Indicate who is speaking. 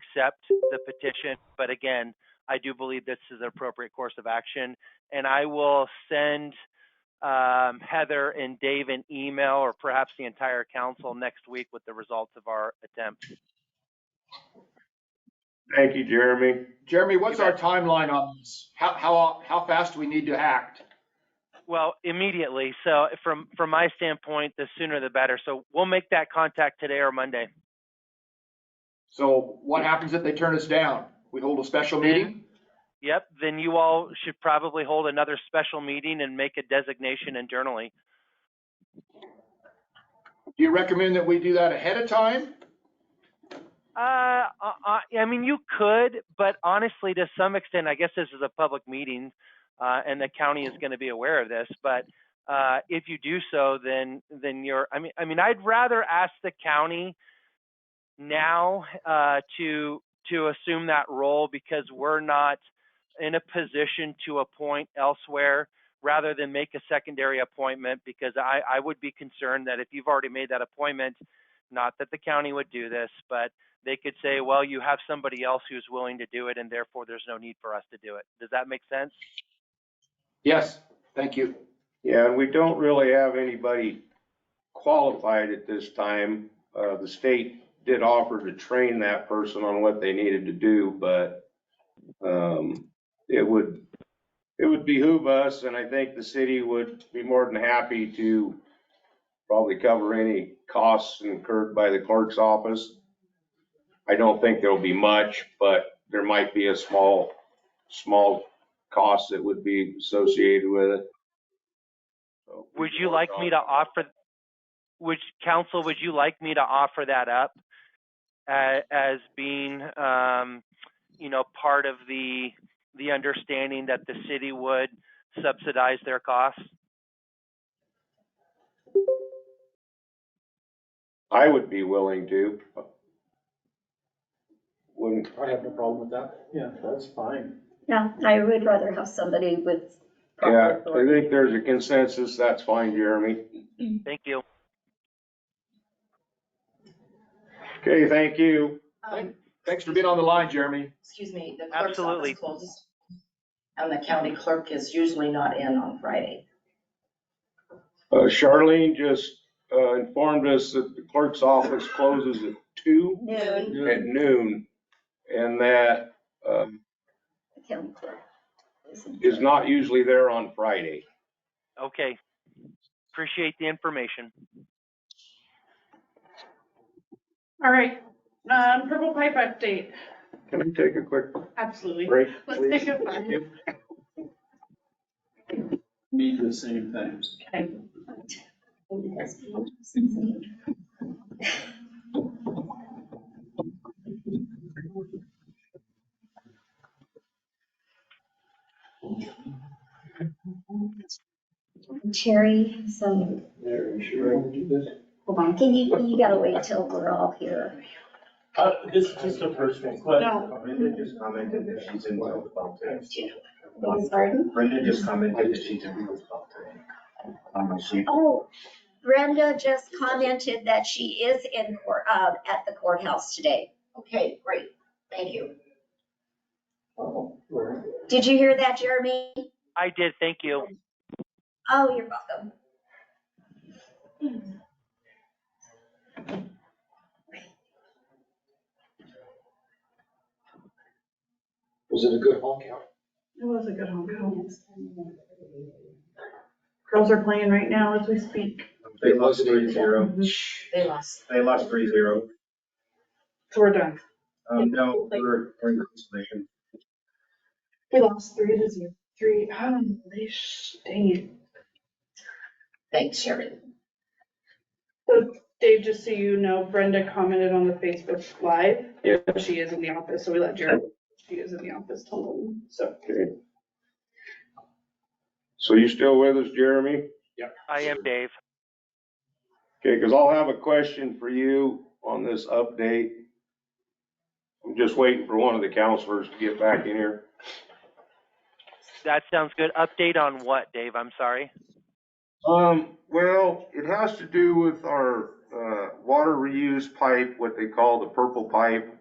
Speaker 1: accept the petition. But again, I do believe this is an appropriate course of action. And I will send um, Heather and Dave an email or perhaps the entire council next week with the results of our attempt.
Speaker 2: Thank you, Jeremy.
Speaker 3: Jeremy, what's
Speaker 1: You
Speaker 3: our
Speaker 1: bet.
Speaker 3: timeline on this? How, how, how fast do we need to act?
Speaker 1: Well, immediately. So from, from my standpoint, the sooner the better. So we'll make that contact today or Monday.
Speaker 3: So what happens if they turn us down? We hold a special
Speaker 1: Then-
Speaker 3: meeting?
Speaker 1: Yep, then you all should probably hold another special meeting and make a designation internally.
Speaker 3: Do you recommend that we do that ahead of time?
Speaker 1: Uh, I, I- I mean, you could, but honestly, to some extent, I guess this is a public meeting, uh, and the county is going to be aware of this. But uh, if you do so, then then you're. I mean, I mean, I'd rather ask the county now uh, to to assume that role because we're not in a position to appoint elsewhere rather than make a secondary appointment because I, I would be concerned that if you've already made that appointment, not that the county would do this, but they could say, well, you have somebody else who's willing to do it, and therefore there's no need for us to do it. Does that make sense?
Speaker 3: Yes, thank you.
Speaker 2: Yeah, and we don't really have anybody qualified at this time. Uh, the state did offer to train that person on what they needed to do, but, um, it would, it would behoove us, and I think the city would be more than happy to probably cover any costs incurred by the clerk's office. I don't think there'll be much, but there might be a small, small cost that would be associated with it. So we
Speaker 1: Would
Speaker 2: could
Speaker 1: you
Speaker 2: work
Speaker 1: like me
Speaker 2: on
Speaker 1: to
Speaker 2: it.
Speaker 1: offer, which council, would you like me to offer that up a- as being, um, you know, part of the, the understanding that the city would subsidize their costs?
Speaker 2: I would be willing to. Wouldn't,
Speaker 4: I have no problem with that. Yeah, that's fine.
Speaker 5: Yeah, I would rather have somebody with
Speaker 2: yeah,
Speaker 5: proper
Speaker 2: I
Speaker 5: authority.
Speaker 2: think there's a consensus, that's fine, Jeremy.
Speaker 1: Thank you.
Speaker 2: Okay, thank you.
Speaker 6: Um,
Speaker 3: Thanks for being on the line, Jeremy.
Speaker 6: Excuse me, the clerk's
Speaker 1: Absolutely.
Speaker 6: office closes. And the county clerk is usually not in on Friday.
Speaker 2: Uh, Charlene just uh, informed us that the clerk's office closes at two
Speaker 5: Noon,
Speaker 2: at noon, and that uh,
Speaker 5: the county clerk. isn't-
Speaker 2: is not usually there on Friday.
Speaker 1: Okay. Appreciate the information.
Speaker 7: All right, um, Purple Pipe update,
Speaker 2: Can I take a quick
Speaker 7: absolutely.
Speaker 2: break,
Speaker 7: Let's
Speaker 2: please?
Speaker 7: take a five.
Speaker 4: Need the same things.
Speaker 7: Okay.
Speaker 5: Terry, so,
Speaker 4: There, you sure I can do this?
Speaker 5: hold on, can you, you gotta wait till we're all here.
Speaker 8: Uh, this is just a personal question.
Speaker 7: No.
Speaker 8: Brenda just commented that she's in Wheels Mountain.
Speaker 5: Pardon?
Speaker 8: Brenda just commented that she's in Wheels Mountain. On my sheet.
Speaker 5: Oh, Brenda just commented that she is in court, uh, at the courthouse today.
Speaker 6: Okay, great, thank you.
Speaker 5: Did you hear that, Jeremy?
Speaker 1: I did, thank you.
Speaker 5: Oh, you're welcome.
Speaker 4: Was it a good honk out?
Speaker 7: It was a good home, good home. Girls are playing right now as we speak.
Speaker 8: They lost three zero.
Speaker 6: They lost.
Speaker 8: They lost three zero.
Speaker 7: So we're done.
Speaker 8: Um, no, we're, we're in consolation.
Speaker 7: We lost three to zero, three, um, they, sh- dang it.
Speaker 6: Thanks, Sherry.
Speaker 7: Dave, just so you know, Brenda commented on the Facebook Live.
Speaker 2: Yeah.
Speaker 7: She is in the office, so we let Jared, she is in the office till noon, so.
Speaker 2: Okay. So you still with us, Jeremy?
Speaker 1: I am Dave.
Speaker 2: Okay, because I'll have a question for you on this update. I'm just waiting for one of the counselors to get back in here.
Speaker 1: That sounds good. Update on what, Dave? I'm sorry.
Speaker 2: Um, well, it has to do with our, uh, water reuse pipe, what they call the purple pipe.